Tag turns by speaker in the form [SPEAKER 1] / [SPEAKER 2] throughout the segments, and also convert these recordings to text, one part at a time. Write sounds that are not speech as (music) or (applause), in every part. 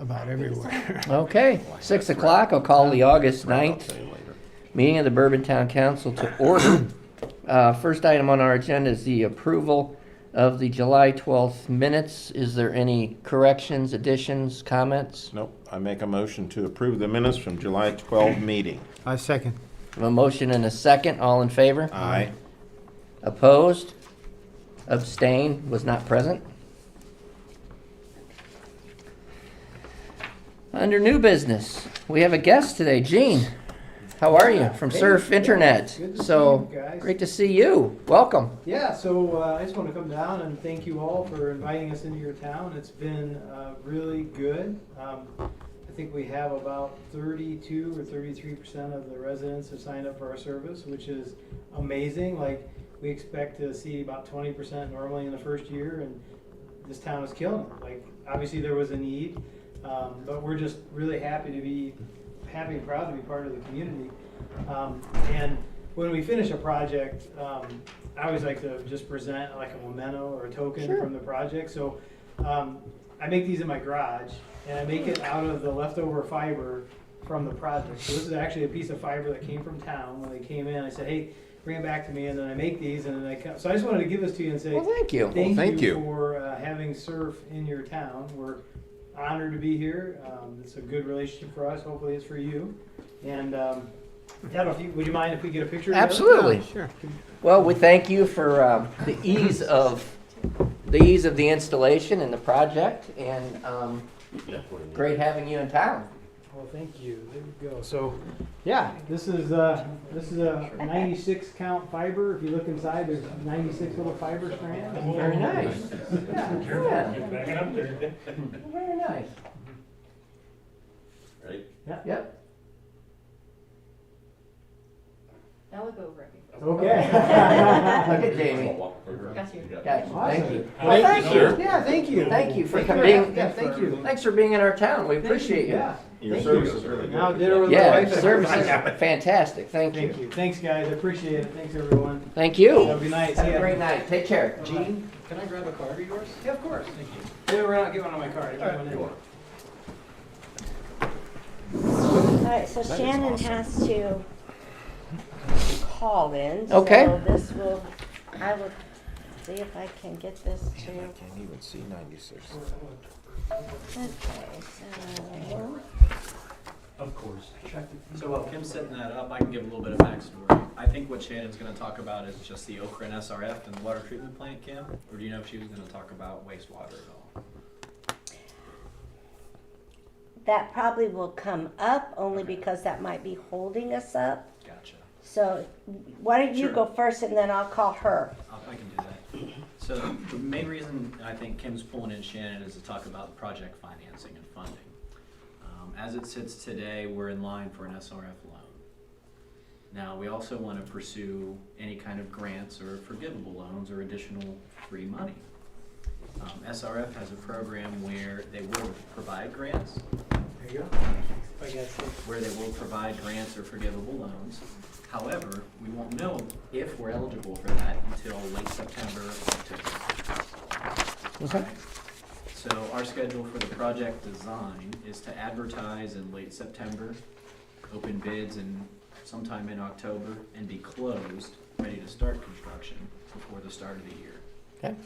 [SPEAKER 1] about everywhere.
[SPEAKER 2] Okay, six o'clock, I'll call the August
[SPEAKER 3] I'll
[SPEAKER 2] 9th
[SPEAKER 3] tell you later.
[SPEAKER 2] meeting of the Bourbon Town Council to order. Uh, First item on our agenda is the approval of the July 12th minutes. Is there any corrections, additions, comments?
[SPEAKER 3] Nope, I make a motion to approve the minutes from July 12 meeting.
[SPEAKER 1] (laughs) I second.
[SPEAKER 2] A motion and a second, all in favor?
[SPEAKER 3] Aye.
[SPEAKER 2] Opposed? Abstain. was not present. Under new business, we have a guest today, Gene. How are you? From
[SPEAKER 4] Hey,
[SPEAKER 2] Surf
[SPEAKER 4] yeah,
[SPEAKER 2] Internet.
[SPEAKER 4] good to see
[SPEAKER 2] So,
[SPEAKER 4] you guys.
[SPEAKER 2] great to see you. Welcome.
[SPEAKER 4] Yeah, so uh, I just want to come down and thank you all for inviting us into your town. It's been uh, really good. Um, I think we have about 32 or 33 percent of the residents have signed up for our service, which is amazing. Like we expect to see about 20 percent normally in the first year, and this town is killing it. Like obviously there was a need, um, but we're just really happy to be happy and proud to be part of the community. Um, and when we finish a project, um, I always like to just present like a memento or a token
[SPEAKER 2] Sure.
[SPEAKER 4] from the project. So um, I make these in my garage, and I make it out of the leftover fiber from the project. So this is actually a piece of fiber that came from town when they came in. I said, hey, bring it back to me, and then I make these, and then I come. So I just wanted to give this to you and say.
[SPEAKER 2] Well, thank you.
[SPEAKER 4] Thank,
[SPEAKER 3] thank
[SPEAKER 4] you,
[SPEAKER 3] you.
[SPEAKER 4] for uh, having surf in your town. We're honored to be here. Um, it's a good relationship for us. Hopefully, it's for you. And um, I don't know if you, would you mind if we get a picture? together?
[SPEAKER 2] Absolutely.
[SPEAKER 1] Sure.
[SPEAKER 2] Well, we thank you for um, the ease of the ease of the installation and the project, and um, great having you in town.
[SPEAKER 4] Well, thank you. There you go. So, yeah, this is uh, this is a 96 count fiber. If you look inside, there's 96 little fiber strands.
[SPEAKER 2] Very nice. Yeah, yeah. Very nice.
[SPEAKER 5] Right?
[SPEAKER 2] Yep.
[SPEAKER 6] Now look over at me.
[SPEAKER 4] Okay.
[SPEAKER 2] Look
[SPEAKER 4] (laughs)
[SPEAKER 2] at Jamie.
[SPEAKER 6] Got you.
[SPEAKER 2] Gotcha. Thank you.
[SPEAKER 4] Awesome.
[SPEAKER 2] Well, thank you.
[SPEAKER 5] sir.
[SPEAKER 4] Yeah, thank you.
[SPEAKER 2] Thank you for
[SPEAKER 4] Thank you.
[SPEAKER 2] being-
[SPEAKER 4] Yeah, thank you.
[SPEAKER 2] Thanks for being in our town. We
[SPEAKER 4] Thank
[SPEAKER 2] appreciate you.
[SPEAKER 4] Yeah.
[SPEAKER 3] Your
[SPEAKER 4] Thank
[SPEAKER 3] service
[SPEAKER 5] you.
[SPEAKER 3] is really good.
[SPEAKER 4] Now dinner with my
[SPEAKER 2] Yeah,
[SPEAKER 4] wife.
[SPEAKER 2] service is fantastic. Thank
[SPEAKER 4] Thank
[SPEAKER 2] you.
[SPEAKER 4] you. Thanks, guys. I appreciate it. Thanks, everyone.
[SPEAKER 2] Thank
[SPEAKER 4] Have a
[SPEAKER 2] you.
[SPEAKER 4] good night.
[SPEAKER 2] Have
[SPEAKER 4] See
[SPEAKER 2] a
[SPEAKER 4] ya.
[SPEAKER 2] great night. Take care.
[SPEAKER 4] Gene, can I grab a card of yours? Yeah, of course. Thank you. Yeah, we're not getting one on my card.
[SPEAKER 7] All right, so Shannon has to call in.
[SPEAKER 2] Okay.
[SPEAKER 7] So this will, I will see if I can get this to, okay,
[SPEAKER 3] Can't even see 96.
[SPEAKER 7] so.
[SPEAKER 8] Of course. So while Kim's setting that up, I can give a little bit of backstory. I think what Shannon's gonna talk about is just the Okra and SRF and the water treatment plant, Kim? Or do you know if she was gonna talk about wastewater at all?
[SPEAKER 7] That probably will come up only because that might be holding us up.
[SPEAKER 8] Gotcha.
[SPEAKER 7] So why don't you
[SPEAKER 8] Sure.
[SPEAKER 7] go first and then I'll call her?
[SPEAKER 8] I'll- I can do that. So the main reason I think Kim's pulling in Shannon is to talk about project financing and funding. Um, As it sits today, we're in line for an SRF loan. Now, we also want to pursue any kind of grants or forgivable loans or additional free money. Um, SRF has a program where they will provide grants,
[SPEAKER 4] There you go. I guess.
[SPEAKER 8] where they will provide grants or forgivable loans. However, we won't know if we're eligible for that until late September, October.
[SPEAKER 2] Okay.
[SPEAKER 8] So our schedule for the project design is to advertise in late September, open bids in sometime in October, and be closed, ready to start construction before the start of the year.
[SPEAKER 2] Okay.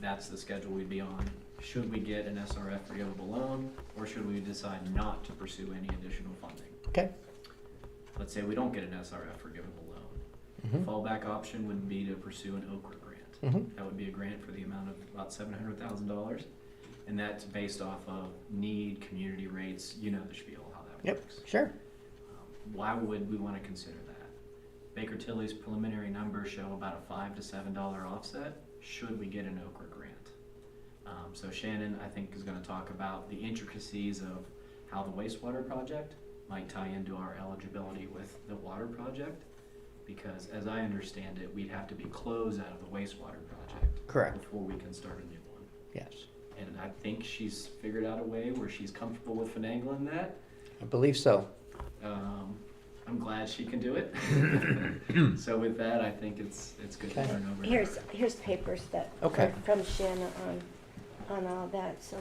[SPEAKER 8] That's the schedule we'd be on. Should we get an SRF forgivable loan, or should we decide not to pursue any additional funding?
[SPEAKER 2] Okay.
[SPEAKER 8] Let's say we don't get an SRF forgivable loan. Fallback option would be to pursue an Okra grant. That would be a grant for the amount of about seven hundred thousand dollars. And that's based off of need, community rates, you know the spiel, how that
[SPEAKER 2] Yep.
[SPEAKER 8] works.
[SPEAKER 2] Sure.
[SPEAKER 8] Why would we want to consider that? Baker Tilly's preliminary numbers show about a five to seven dollar offset should we get an Okra grant. Um, so Shannon, I think, is gonna talk about the intricacies of how the wastewater project might tie into our eligibility with the water project. Because as I understand it, we'd have to be closed out of the wastewater project.
[SPEAKER 2] Correct.
[SPEAKER 8] Before we can start a new one.
[SPEAKER 2] Yes.
[SPEAKER 8] And I think she's figured out a way where she's comfortable with finagling that.
[SPEAKER 2] I believe so.
[SPEAKER 8] Um, I'm glad she can do it. (laughs) so with that, I think it's it's good
[SPEAKER 2] Okay.
[SPEAKER 8] to turn over. to
[SPEAKER 7] Here's,
[SPEAKER 8] her.
[SPEAKER 7] here's papers that,
[SPEAKER 2] Okay.
[SPEAKER 7] from Shannon on, on all that, so.